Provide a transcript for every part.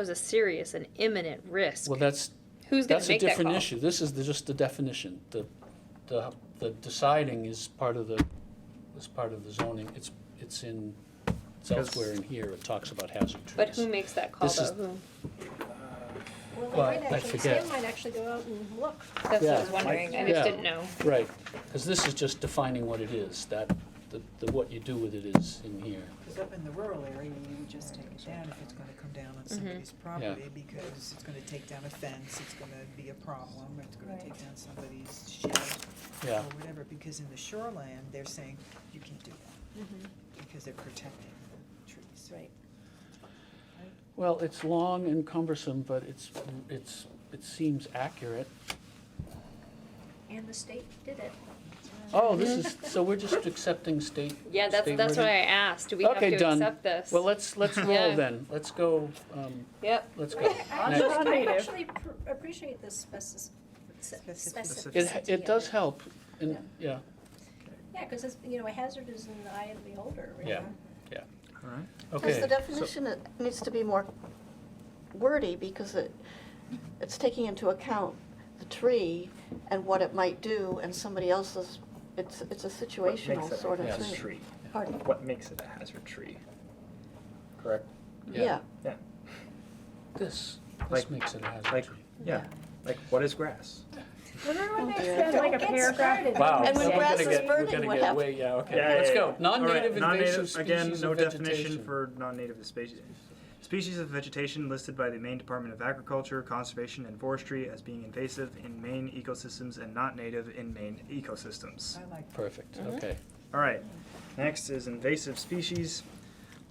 was a serious and imminent risk. Well, that's, Who's going to that's a make that different call? issue. This is the- just the definition. The, the, the deciding is part of the, is part of the zoning. It's, it's in, it's elsewhere in here. It talks about hazard trees. But who makes that call This is- though? Who? Well, they Well, might I actually, forget. Sam might actually go out and look. That's what I was Yeah. wondering. I Yeah. just didn't know. Right, because this is just defining what it is, that, the, the, what you do with it is in here. Because up in the rural area, you would just take it down if it's gonna come down Mm-hmm. on somebody's property, because it's gonna take down a fence, it's gonna be a problem, it's gonna Right. take down somebody's shed Yeah, or whatever, because in the shoreland, they're saying, you can't do that, Mm-hmm. because they're protecting the trees. Right. well, it's long and cumbersome, but it's, it's, it seems accurate. And the state did it. Oh, this is, so we're just accepting state. Yeah, that's state that's wording? why I asked. Do we have Okay, to done. accept this? Well, let's, let's roll Yeah. then. Let's go, um, yep. let's go. I Next. actually- I Native. actually pr- appreciate the speci- Specificity. It, specificity. it does help, and, yeah, Yeah, because it's, you know, a hazard is in the eye of the beholder, really. Yeah. yeah. All right. Because the Okay, definition it needs to be more wordy because it, it's taking into account the tree and what it might do and somebody else's, it's, it's a What makes situational it a sort of hazard thing. tree? Pardon? What makes it a hazard tree? Correct? yeah, Yeah, Yeah, this, this Like- makes it a hazard like, tree. yeah, like what is grass? Remember when they dear. said like a Don't get paragraph? started. Wow. And when we're grass gonna is get- we're burning, gonna what get happens? way- Yeah, okay, Yeah, yeah, let's yeah, go. yeah. Non-native All right, invasive non-native- again, species no of definition vegetation. for non-native species. Species of vegetation listed by the Maine Department of Agriculture, Conservation, and Forestry as being invasive in Maine ecosystems and not native in Maine ecosystems. I like Perfect, okay. All right. Next is invasive species.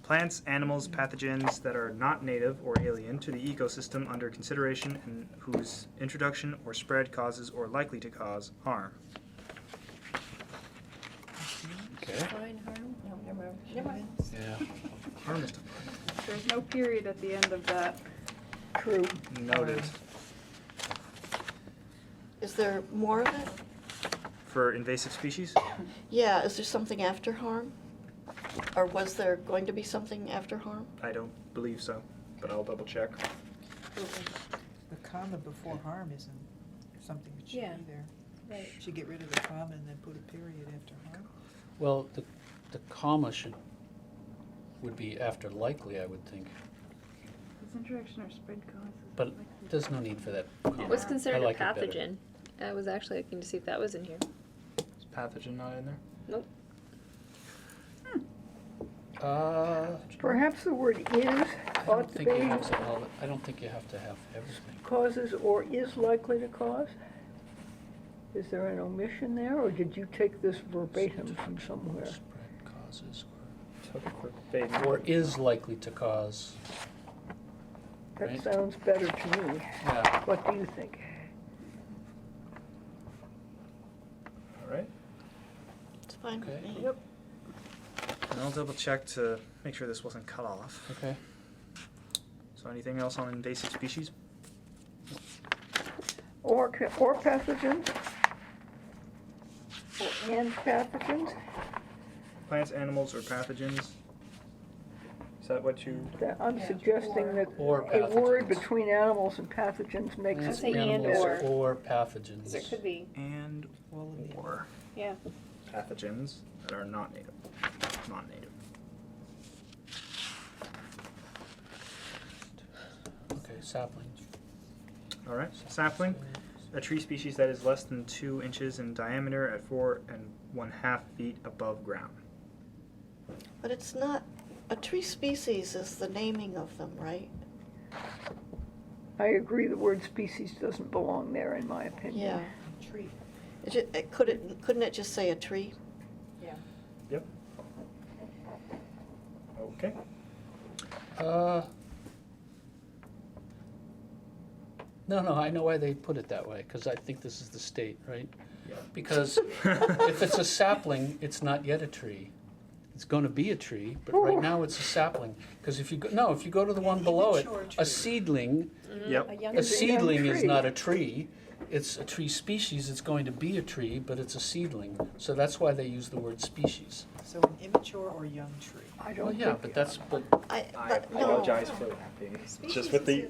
Plants, animals, pathogens that are not native or alien to the ecosystem under consideration and whose introduction or spread causes or likely to cause harm. Okay. Fine, harm? No, never mind. Never mind. humans. Yeah. Harm is There's no period at the end of that. True. noted is there more of it? for invasive species. Yeah, is there something after harm? Or was there going to be something after harm? I don't believe so, but I'll double check. The comma before harm isn't something that should Yeah. be there. Right. Should get rid of the comma and then put a period after harm. Well, the, the comma should, would be after likely, I would think, This introduction or spread causes. but there's no need for that comma. Yeah. I What's What's considered like a it better. pathogen? I was actually looking to see if that was in here. Is pathogen not in there? Uh, Perhaps the word is I don't ought to think you be have to, all- I don't think you have to have everything. causes or is likely to cause? Is there an omission there, or did you take this verbatim from somewhere? Spread causes Took a quick bait. or, or is likely to cause, Right. That sounds better to me. yeah, What do you think? All right. It's fine with Okay. me. And I'll double check to make sure this wasn't cut off. okay. So anything else on invasive species? Or, ca- or pathogens? Or and pathogens? plants, animals, or pathogens. Is that what you? That- I'm Yeah. suggesting that Or a word pathogens. between animals and pathogens makes I'd it say and Animals or. Or Because there pathogens. could be. And All of the or Yeah. pathogens that are not native, non-native. Okay, saplings. All right, sapling, a tree species that is less than two inches in diameter at four and one half feet above ground. But it's not, a tree species is the naming of them, right? I agree, the word species doesn't belong there, in my opinion. Yeah. tree. It ju- it could it, couldn't it just say a tree? Yep. Okay. Uh, No, no, I know why they put it that way, because I think this is the state, right? Yeah. Because if it's a sapling, it's not yet a tree. it's gonna be a tree, but right now it's a sapling. Because if you, go no, if you go to the one below it, immature a tree. seedling, Yep. A young a tree. seedling is tree. not a tree. It's a tree species, it's going to be a tree, but it's a seedling. So that's why they use the word species. So an immature or young tree. I Well, don't yeah, think, but that's, but I, I but no. apologize for laughing. Just with Species the is-